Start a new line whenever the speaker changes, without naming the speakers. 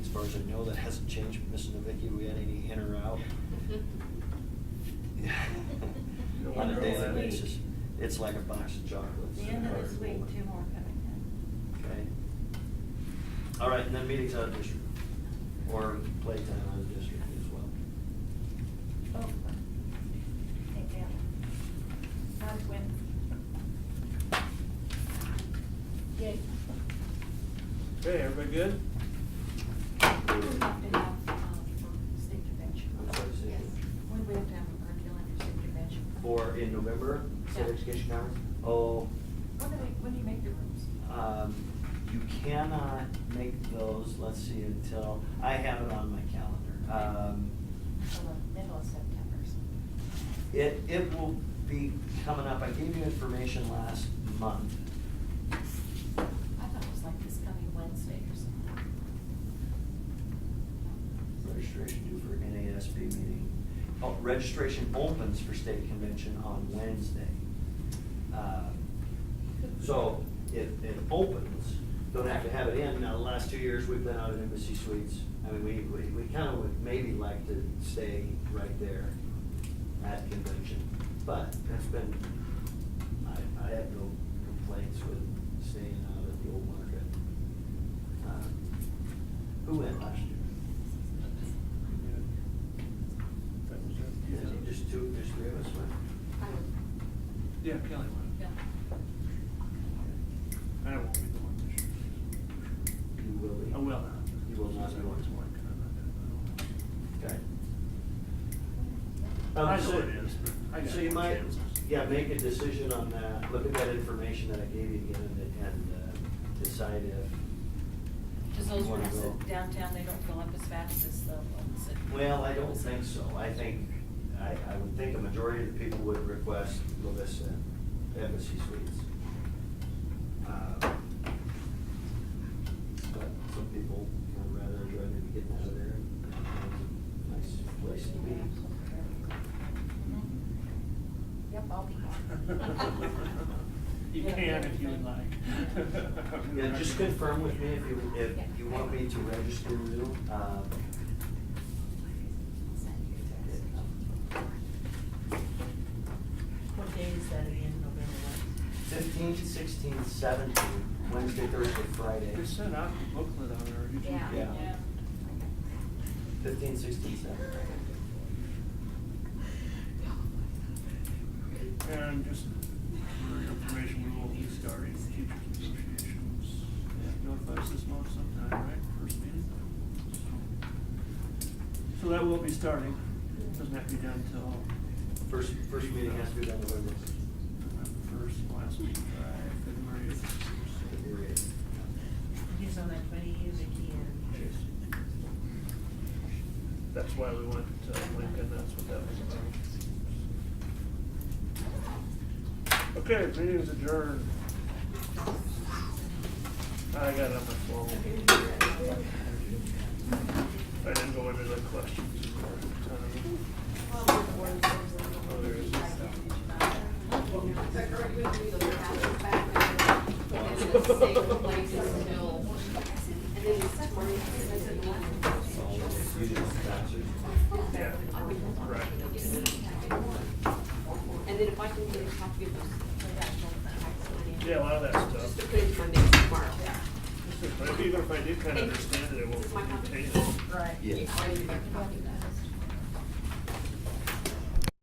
far as I know, that hasn't changed, from Mrs. Novicki, we had any in or out.
No,
On a
no,
daily
that-
basis, it's like a box of chocolates.
The end of this week, two more coming
Okay. All right, and then meetings out of district, or playtime out of district as well.
in. Both of them. Take them. Not a win. Yay.
Okay, everybody good?
We have to have, um, state convention.
I'm sorry, say
Yes. We would have to have a curriculum and state convention.
Or in November, state
Yeah.
education conference? Oh,
When do we, when do you make the rooms?
um, you cannot make those, let's see, until, I have it on my calendar. Um,
Till the Uh, middle of September. so.
It, it will be coming up, I gave you information last month.
I thought it was like this coming Wednesday or something.
Registration due for NASB meeting. Oh, Registration opens for state convention on Wednesday. Um, So it, it opens, don't have to have it in. Now, the last two years, we've been out at Embassy Suites. I mean, we, we, we kind of would maybe like to stay right there at convention. But it's been, I, I have no complaints with staying out at the old market. Um, Who went last year? Yeah, just two, just three of us went.
I would,
Yeah, Kelly won.
yeah.
I won't be the one this year.
You will be.
I will not.
You will not be one.
She's working on
Okay. Um,
it. I know it is, but I got.
So you
more
might,
chances.
yeah, make a decision on that, look at that information that I gave you again and, and uh, decide if,
Cause those
Wanna
ones
go?
that downtown, they don't fill up as fast as the ones that.
well, I don't think so. I think, I, I would think a majority of the people would request Lovista Embassy Suites. Um, But some people would rather enjoy maybe getting out of there. Nice place to be.
Yep, Mm-hmm. I'll be gone.
You can if you would like.
Yeah, just confirm with me if you, if you want me to register you, um,
What day is that again, November what?
fifteen, sixteen, seventeen, Wednesday, Thursday, Friday.
They sent out the booklet on there. you
Yeah.
can-
Yeah. Fifteen, sixteen, seventeen.
And just for your information, we will be starting teachers negotiations. Notify us this month sometime, right, first meeting? So that will be starting, doesn't have to be done till
First, first meeting has to be done November
November uh, first, last week, uh, February.
February eighth.
He's on that twenty years again.
That's why we went to Lincoln, that's what that was about. Okay, meeting's adjourned. I got it on my phone. I didn't go into the questions. Oh, there is.
So, you did sponsor.
Yeah, right.
And then if I can get a copy of those.
Yeah, a lot of that
Just to
stuff.
put into my notes tomorrow.
But even if I do kind of understand it, I won't retain it.
I'll give you back a copy.